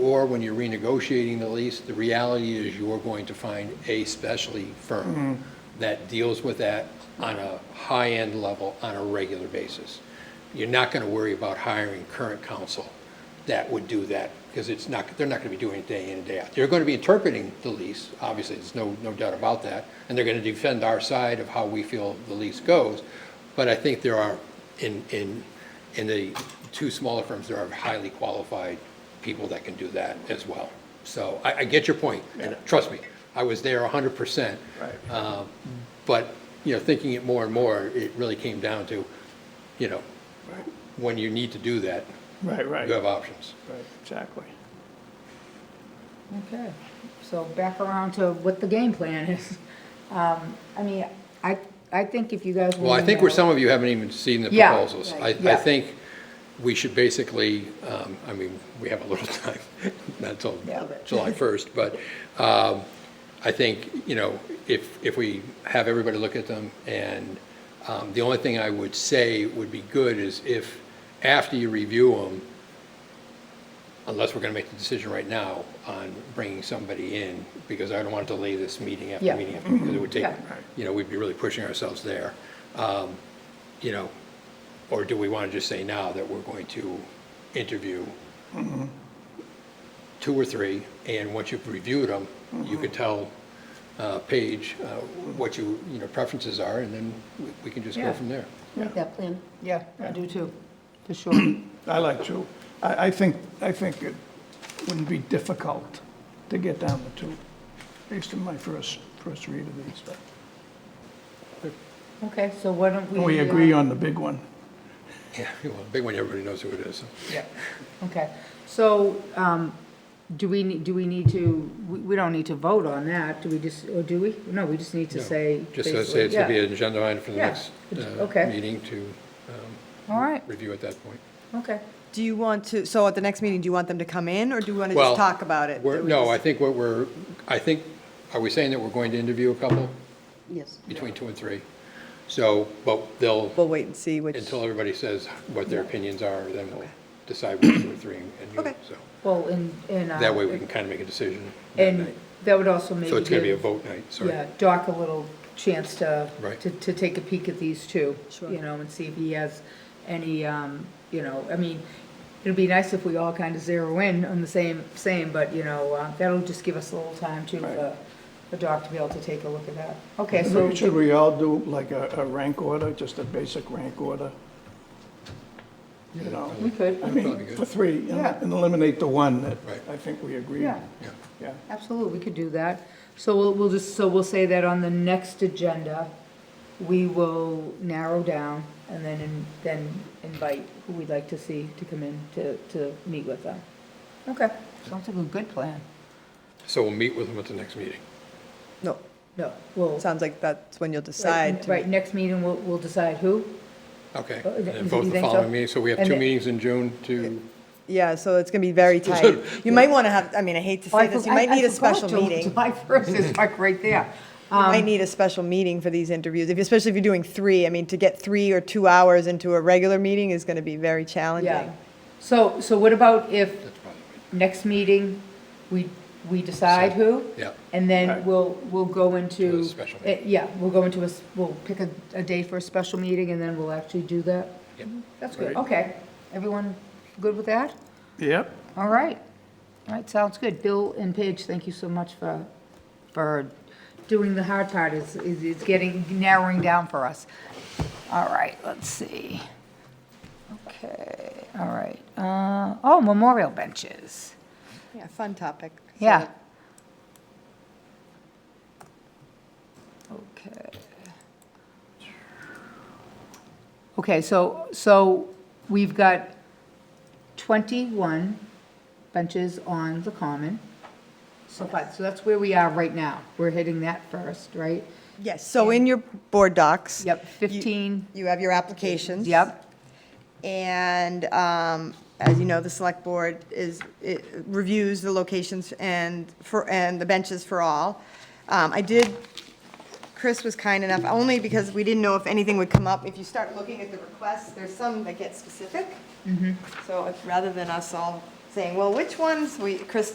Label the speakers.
Speaker 1: Or when you're renegotiating the lease, the reality is you're going to find a specialty firm that deals with that on a high-end level on a regular basis. You're not going to worry about hiring current counsel that would do that because it's not, they're not going to be doing it day in and day out. They're going to be interpreting the lease, obviously, there's no, no doubt about that. And they're going to defend our side of how we feel the lease goes. But I think there are, in, in, in the two smaller firms, there are highly qualified people that can do that as well. So I, I get your point, and trust me, I was there hundred percent.
Speaker 2: Right.
Speaker 1: Um, But, you know, thinking it more and more, it really came down to, you know, when you need to do that,
Speaker 2: Right, right,
Speaker 1: you have options.
Speaker 2: right, exactly.
Speaker 3: Okay, so back around to what the game plan is. Um, I mean, I, I think if you guys.
Speaker 1: Well, I think where
Speaker 3: remember-
Speaker 1: some of you haven't even seen the
Speaker 3: Yeah,
Speaker 1: proposals. I,
Speaker 3: right,
Speaker 1: I
Speaker 3: yeah.
Speaker 1: think we should basically, um, I mean, we have a little time, not till
Speaker 3: Yeah, but-
Speaker 1: July first, but, um, I think, you know, if, if we have everybody look at them and, um, the only thing I would say would be good is if, after you review them, unless we're gonna make the decision right now on bringing somebody in, because I don't want to delay this meeting after
Speaker 3: Yeah.
Speaker 1: meeting after, because it would take,
Speaker 3: Yeah.
Speaker 1: you know, we'd be really pushing ourselves there. Um, You know, or do we want to just say now that we're going to interview
Speaker 3: Mm-hmm.
Speaker 1: two or three, and once you've reviewed them, you
Speaker 3: Mm-hmm.
Speaker 1: could tell uh, Paige uh, what you, you know, preferences are, and then we- we can just go
Speaker 3: Yeah.
Speaker 1: from there.
Speaker 4: Make that plan.
Speaker 3: Yeah, I do too, for sure.
Speaker 2: I like two. I, I think, I think it wouldn't be difficult to get down to two, based on my first, first read of these.
Speaker 3: Okay, so why don't we?
Speaker 2: We
Speaker 3: uh,
Speaker 2: agree on the big one.
Speaker 1: Yeah, well, big one, everybody knows who it is.
Speaker 2: Yeah.
Speaker 3: Okay, so, um, do we, ne- do we need to, we, we don't need to vote on that, do we just, or do we? No, we just need to say.
Speaker 1: Just to say it's gonna be
Speaker 3: basically-
Speaker 1: an agenda item for the
Speaker 3: Yeah.
Speaker 1: next uh,
Speaker 3: Okay.
Speaker 1: meeting to
Speaker 3: yeah. All right,
Speaker 1: review at that point.
Speaker 3: okay.
Speaker 5: Do you want to, so at the next meeting, do you want them to come in, or do you want to
Speaker 1: Well,
Speaker 5: just talk about it?
Speaker 1: we're-
Speaker 5: That we
Speaker 1: No, I
Speaker 5: just-
Speaker 1: think what we're, I think, are we saying that we're going to interview a couple
Speaker 4: Yes.
Speaker 1: between two and three? So, but they'll,
Speaker 5: We'll wait and see which,
Speaker 1: until everybody says what their opinions are, then we'll decide which two or three and you,
Speaker 5: Okay.
Speaker 1: so.
Speaker 3: Well, and, and. uh,
Speaker 1: That way we can kind of make a decision. that
Speaker 3: And
Speaker 1: night.
Speaker 3: that would also make.
Speaker 1: So it's gonna be a
Speaker 3: give-
Speaker 1: vote night, sorry.
Speaker 3: Yeah, Doc a little chance to,
Speaker 1: Right.
Speaker 3: to, to take a peek at these two.
Speaker 5: Sure.
Speaker 3: You know, and see if he has any, um, you know, I mean, it'd be nice if we all kind of zero in on the same, same, but, you know, uh, that'll just give us a little time to, uh, for Doc to be able to take a look at that. Okay,
Speaker 1: Mm-hmm.
Speaker 3: so,
Speaker 2: Should we all do like a, a rank order, just a basic rank order? You know?
Speaker 3: we could,
Speaker 2: I
Speaker 1: Probably
Speaker 2: mean,
Speaker 1: good.
Speaker 2: for three, and-
Speaker 3: Yeah.
Speaker 2: and eliminate the one that
Speaker 1: Right.
Speaker 2: I think we agree
Speaker 3: yeah,
Speaker 2: on.
Speaker 1: Yeah.
Speaker 2: Yeah.
Speaker 3: absolutely, we could do that. So we'll, we'll just, so we'll say that on the next agenda, we will narrow down and then, in- then invite who we'd like to see to come in to, to meet with them. Okay, sounds like a good plan.
Speaker 1: So we'll meet with them at the next meeting.
Speaker 5: no,
Speaker 3: No, we'll.
Speaker 5: sounds like that's when you'll decide.
Speaker 3: Right,
Speaker 5: to-
Speaker 3: Right, next meeting, we'll, we'll decide who.
Speaker 1: Okay.
Speaker 3: Oh,
Speaker 1: And
Speaker 3: you
Speaker 1: then vote the
Speaker 3: think so?
Speaker 1: following meeting. So we have
Speaker 3: And
Speaker 1: two
Speaker 3: the-
Speaker 1: meetings in June to,
Speaker 5: Yeah, so it's going to be very tight. You might want to have, I mean, I hate to
Speaker 3: Oh,
Speaker 5: say this, you might need a special meeting. You
Speaker 3: July 1st is like right there. Um,
Speaker 5: might need a special meeting for these interviews, if- especially if you're doing three. I mean, to get three or two hours into a regular meeting is going to be very
Speaker 3: Yeah.
Speaker 5: challenging.
Speaker 3: So, so what about if
Speaker 1: that's probably, right.
Speaker 3: next meeting, we, we decide who?
Speaker 1: yeah.
Speaker 3: And then
Speaker 2: Right.
Speaker 3: we'll, we'll go
Speaker 1: To
Speaker 3: into.
Speaker 1: a special
Speaker 3: eh, Yeah, we'll go into a, s- we'll pick a, a day for a special meeting and then we'll actually do that. Mm-hmm.
Speaker 1: Yep.
Speaker 3: That's good,
Speaker 2: Right.
Speaker 3: okay. Everyone good with that?
Speaker 2: Yep.
Speaker 3: All right. All right, sounds good. Bill and Paige, thank you so much for, for doing the hard part. It's, it's it's getting, narrowing down for us. All right, let's see. Okay, all right. Uh, oh, memorial benches.
Speaker 5: Yeah, fun topic. So
Speaker 3: Yeah. Okay. Okay, so, so we've got 21 benches on the common. So, but, so that's where we are right now. We're hitting that first, right?
Speaker 5: Yes, so in your board docs.
Speaker 3: Yep,
Speaker 5: you-
Speaker 3: 15.
Speaker 5: You have your applications.
Speaker 3: Yep,
Speaker 5: And um, as you know, the select board is, it reviews the locations and for, and the benches for all. Um, I did, Chris was kind enough, only because we didn't know if anything would come up. If you start looking at the requests, there's some that get specific. So if- rather than us all saying, well, which ones, we, Chris